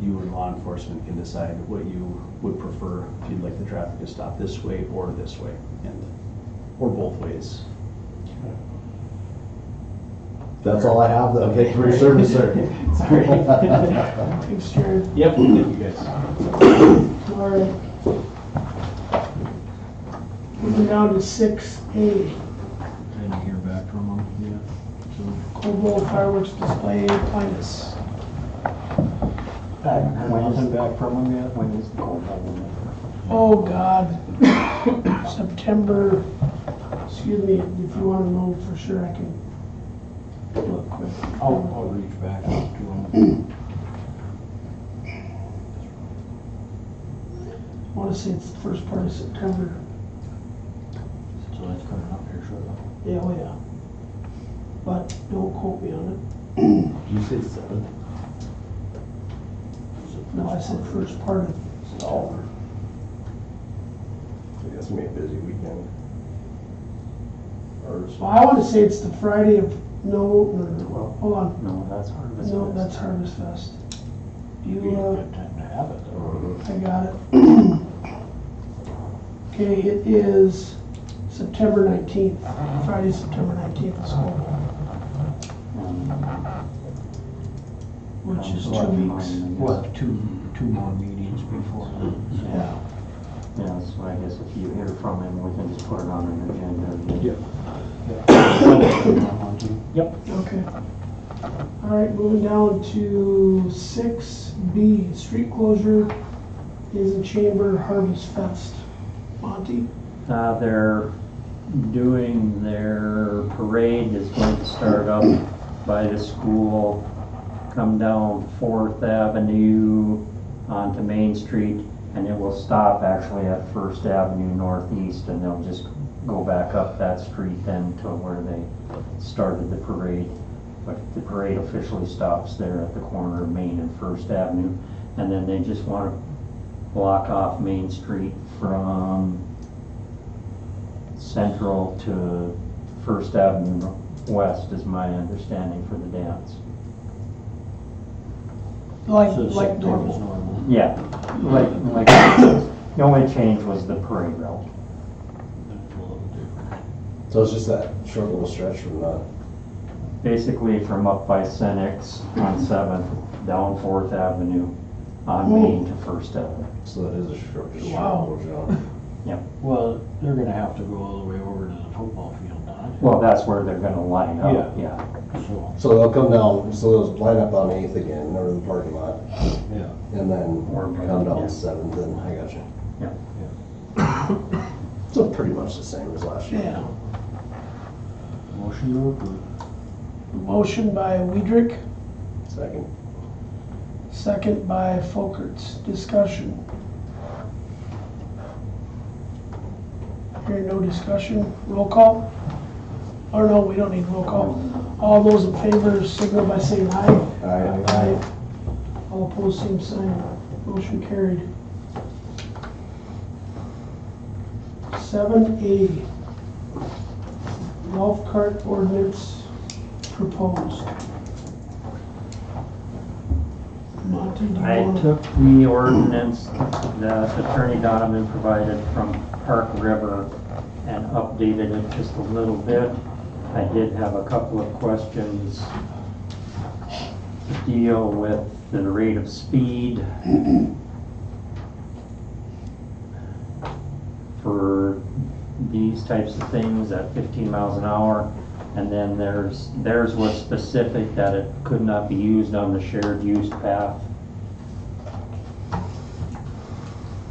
you and law enforcement can decide what you would prefer, if you'd like the traffic to stop this way or this way, and, or both ways. That's all I have, the Okay. victory service there. Sorry. Thanks, Jared. Yep, thank you guys. All right. Moving down to six A, Didn't hear back from them yet, Cobalt fireworks display appliance. I haven't heard nothing back from him yet, when is the cold one? Oh, God. September, excuse me, if you wanna know for sure, I can look quick. so I'll, I'll reach back out to them. I wanna say it's the first part of September. So that's coming up here shortly. Yeah, oh, yeah. But don't quote me on it. You said seven? No, I said first part of Oh. It's gonna be a busy weekend. Ours. Well, I wanna say it's the Friday of, no, no, no, well, hold on, No, that's Harvest no, that's Fest. Harvest Fest. Be a You, uh, good time to have it though. I got it. Okay, it is September nineteenth, Uh-huh. Friday, September nineteenth, so, Um, which is so I two have weeks. mine, I We'll guess. have two, two more meetings before then. Yeah, Yeah, so I guess if you hear from him, we can just put it on an agenda. and- Yep. Yep. okay. All right, moving down to six B, street closure, is in Chamber Harvest Fest. Monty? Uh, they're doing their parade is going to start up by the school, come down Fourth Avenue onto Main Street, and it will stop actually at First Avenue Northeast, and they'll just go back up that street then to where they started the parade. But the parade officially stops there at the corner of Main and First Avenue, and then they just wanna block off Main Street from Central to First Avenue West is my understanding for the dance. Like, So like September's normal. normal. Yeah, like, like, the only change was the parade route. That's a little different. So it's just that short little stretch from the, Basically from up by Senex on Seventh, down Fourth Avenue, on Main to First Avenue. so that is a short, just short Wow. little jump. Well, they're gonna have to go all the way over to the football field now. Well, that's where they're gonna line up, yeah. So, So they'll come down, so they'll line up on Eighth again, over the parking lot, yeah, and then Or- come yeah. down Seventh, and I got you. Yeah. So pretty much the same as last year. Yeah. motion to approve. Motion by Weidrich, Second. second by Folkerts. Discussion. Hearing no discussion, roll call? Or no, we don't need roll call. All those in favor signal by saying aye. Aye. All opposed, same sign. Motion carried. Seven A, golf cart ordinance proposed. Monty, do you I want to? took the ordinance that Attorney Donovan provided from Park River and updated it just a little bit. I did have a couple of questions to deal with the rate of speed for these types of things at 15 miles an hour. And then there's, theirs was specific that it could not be used on the shared use path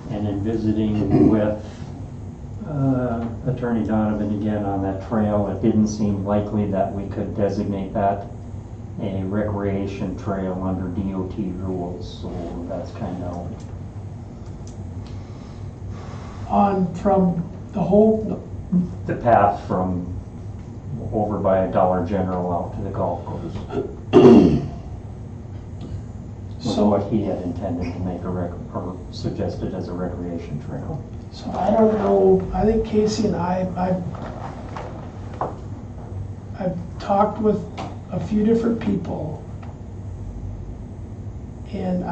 and in visiting with uh, Attorney Donovan again on that trail, it didn't seem likely that we could designate that a recreation trail under DOT rules, so that's kind of, On from the whole, no, the path from over by Dollar General out to the golf course. So so, what he had intended to make a rec, or suggested as a recreation trail. so I don't know, I think Casey and I, I've, I've talked with a few different people. And